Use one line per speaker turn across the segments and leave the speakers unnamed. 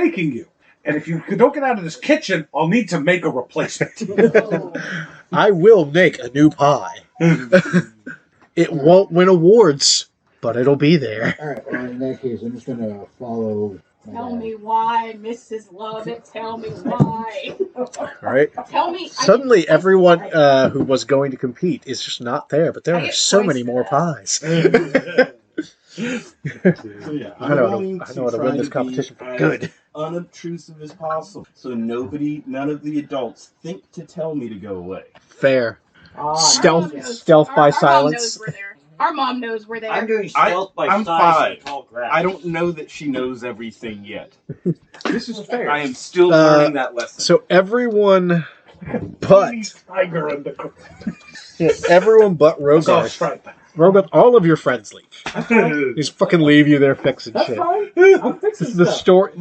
taking you. And if you don't get out of this kitchen, I'll need to make a replacement.
I will make a new pie. it won't win awards, but it'll be there.
All right. Well, in that case, I'm just gonna follow. my
Tell
dad.
me why, Mrs. Lovett. Tell me why.
All right.
Tell me. I
Suddenly,
get-
everyone uh, who was going to compete is just not there, but there
I
are
get
so
points
many
for
more
that.
pies.
So yeah,
I know how
I'm going
to, I know how to
try
win this
be
competition for
as
good.
unobtrusive as possible, so nobody, none of the adults think to tell me to go away.
Fair.
Ah,
Stealth,
yeah.
stealth
Our-
by
our Mom knows
silence.
we're there. Our mom knows we're there.
I'm doing
I-
stealth by
I'm
size
five.
and tall grass.
I don't know that she knows everything yet.
this is fair.
I am still
Uh,
learning that lesson.
So everyone, but
Please, tiger and the cr-
yeah, everyone but
Oh,
Rogar.
stripe.
Rogar, all of your friends leave.
Luke,
Just fucking leave you there fixing
That's
shit.
fine. I'm fixing
This is the
stuff.
story.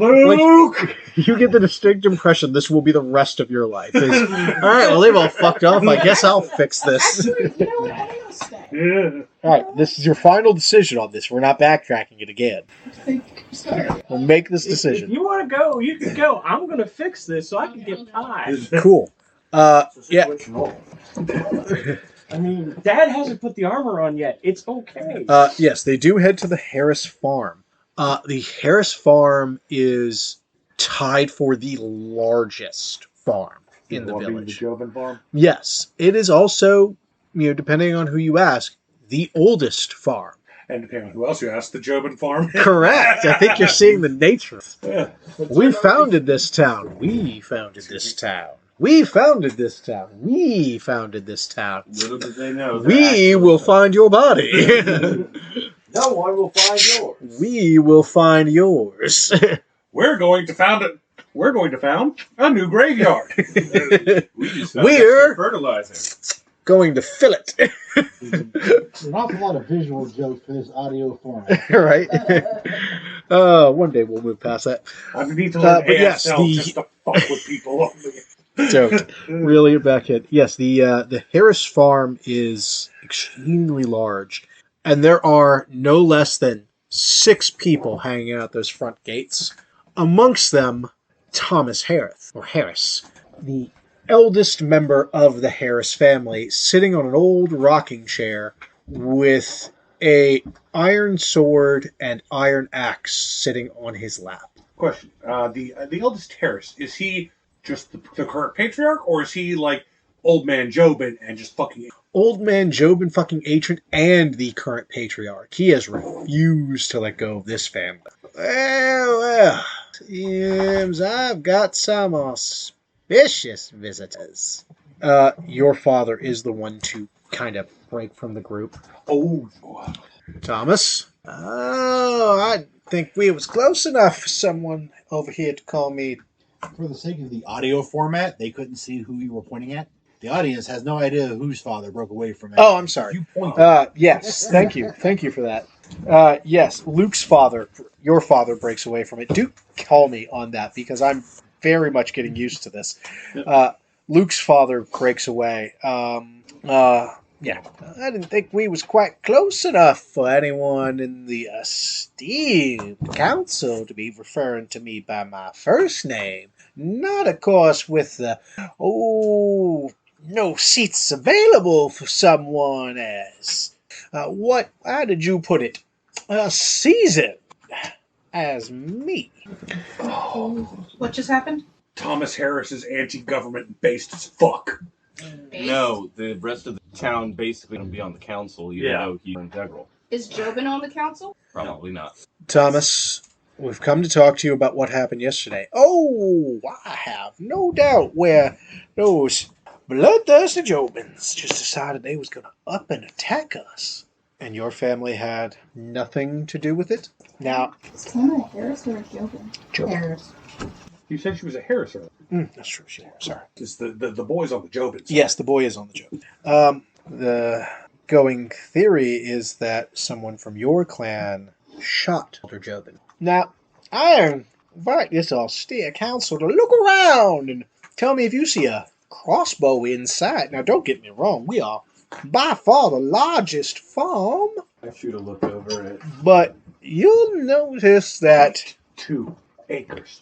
You get the distinct impression this will be the rest of your life. It's, all right, well they've all fucked off. I guess I'll fix this.
Actually, you know what? I'm gonna stay.
yeah.
All right, this is your final decision on this. We're not backtracking it again.
I think I'm sorry.
We'll make this
If- If
decision.
you want to go, you can go. I'm gonna fix this so I can get pie.
Cool. Uh, yeah.
I mean, Dad hasn't put the armor on yet. It's okay.
Uh, yes, they do head to the Harris Farm. Uh, the Harris Farm is tied for the largest farm in the village. Yes, it is also, you know, depending on who you ask, the oldest farm.
And depending on who else you ask, the Jobin farm.
Correct. I think you're seeing the nature.
Yeah.
We founded this town. We founded this town. We founded this town. We founded this town.
Little did they know.
We will find your body.
no one will find yours.
we will find yours.
We're going to found it. We're going to found a new graveyard.
we just
We're-
fertilizing.
Going to fill it.
uh, An awful lot of visual jokes for this audio form.
right? uh, one day we'll move past that.
I need to
Uh,
learn
but yes,
ASL
the-
just to fuck with people.
Joke. Really back in. Yes, the uh, the Harris farm is extremely large, and there are no less than six people hanging out those front gates. Amongst them, Thomas Harris or Harris, the eldest member of the Harris family, sitting on an old rocking chair with a iron sword and iron axe sitting on his lap.
Question: uh, the uh, the eldest Harris is he just the, the current patriarch, or is he like old man Jobin and just fucking?
old man Job and fucking Atron and the current patriarch. He has refused to let go of this family. Well, well, seems I've got some auspicious visitors. Uh, your father is the one to kind of break from the group.
Oh,
Thomas? Oh, I think we was close enough for someone over here to call me.
For the sake of the audio format, they couldn't see who you were pointing at. The audience has no idea whose father broke away from it.
Oh, I'm sorry.
You point.
Uh, yes, thank you, thank you for that. Uh, yes, Luke's father, your father, breaks away from it. Do call me on that because I'm very much getting used to this. Uh, Luke's father breaks away. Um, uh, yeah, I didn't think we was quite close enough for anyone in the esteemed council to be referring to me by my first name. Not, of course, with the oh no seats available for someone as uh, what how did you put it a season as me
What just happened?
Thomas Harris is anti-government based as fuck.
No, the rest of the town basically gonna be on the council, even
Yeah.
though he's integral.
Is Jobin on the council?
Probably not.
thomas we've come to talk to you about what happened yesterday oh i have no doubt where those bloodthirsty jobins just decided they was gonna up and attack us and your family had nothing to do with it now
Is Tamara Harris or Jobin?
Jobin.
Harris.
You said she was a Harris, or
mm, that's true shit, sorry
is the, the the boys on the Jobin? side.
Yes, the boy is on the joke. Um, the going theory is that someone from your clan shot Elder Jobin. Now, I invite this austere council to look around and tell me if you see a crossbow in sight. Now, don't get me wrong, we are by far the largest farm,
I should have looked over it.
but you'll notice that
two acres.